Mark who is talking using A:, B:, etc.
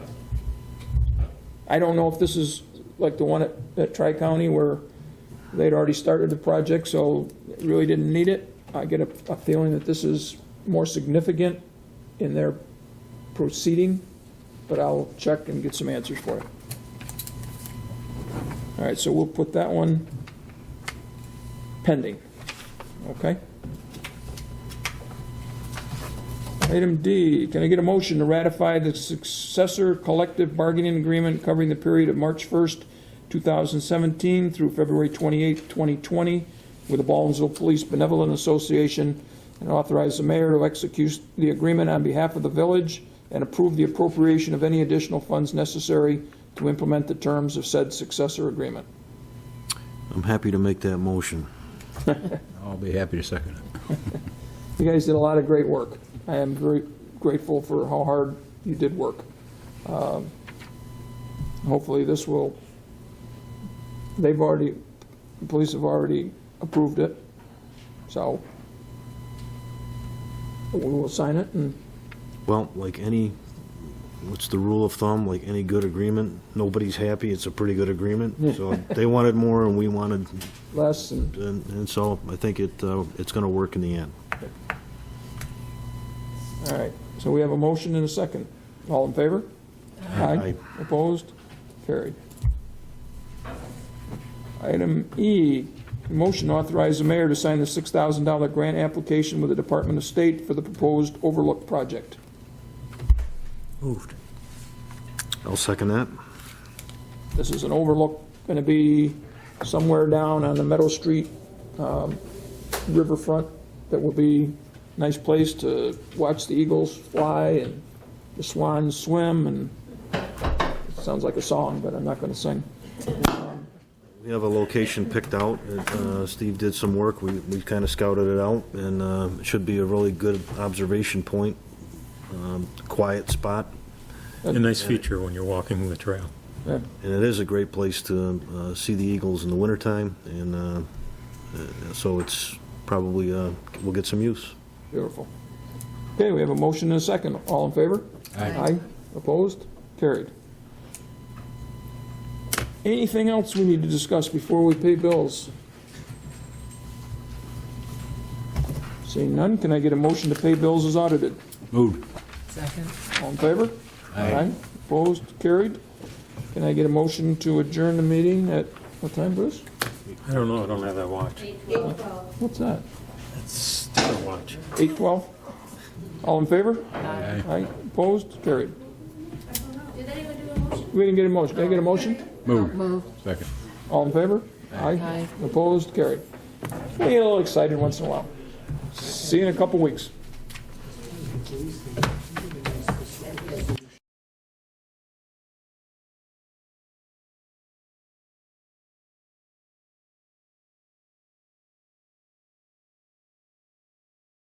A: I don't know if this is like the one at, at Tri-County where they'd already started the project, so really didn't need it. I get a, a feeling that this is more significant in their proceeding, but I'll check and get some answers for you. All right, so we'll put that one pending, okay? Item D, can I get a motion to ratify the successor collective bargaining agreement covering the period of March 1st, 2017 through February 28th, 2020 with the Baldwinsville Police Benevolent Association and authorize the mayor to execute the agreement on behalf of the village and approve the appropriation of any additional funds necessary to implement the terms of said successor agreement?
B: I'm happy to make that motion.
C: I'll be happy to second it.
A: You guys did a lot of great work. I am very grateful for how hard you did work. Um, Hopefully, this will, they've already, the police have already approved it, so we will sign it, and
B: Well, like any, what's the rule of thumb, like any good agreement, nobody's happy, it's a pretty good agreement. So they wanted more and we wanted,
A: less, and
B: and and so I think it, uh, it's going to work in the end.
A: All right, so we have a motion and a second. All in favor?
B: Aye.
A: Opposed? Carried. Item E, motion to authorize the mayor to sign the $6,000 grant application with the Department of State for the proposed overlook project.
C: Moved.
B: I'll second that.
A: This is an overlook, going to be somewhere down on the Meadow Street um, riverfront that will be a nice place to watch the eagles fly and the swans swim and, it sounds like a song, but I'm not going to sing.
B: We have a location picked out. Uh, Steve did some work. We, we kind of scouted it out, and uh, it should be a really good observation point. Um, Quiet spot,
D: A nice feature when you're walking the trail.
A: Yeah,
B: and it is a great place to uh, see the eagles in the wintertime, and uh, uh, so it's probably, uh, we'll get some use.
A: Beautiful. Okay, we have a motion and a second. All in favor? Aye. Opposed? Carried. Anything else we need to discuss before we pay bills? Seeing none, can I get a motion to pay bills as audited?
C: Moved.
E: Second.
A: All in favor? Opposed? Carried. Can I get a motion to adjourn the meeting at, what time, Bruce?
D: I don't know, I don't have that watch.
A: What's that?
D: It's still a watch.
A: 8:12? All in favor?
D: Aye.
A: Aye. Opposed? Carried.
F: Did anyone do a motion?
A: We didn't get a motion. Can I get a motion?
C: Moved.
E: Move.
C: Second.
A: All in favor? Aye.
E: Aye.
A: Opposed? Carried. We get a little excited once in a while. See you in a couple weeks.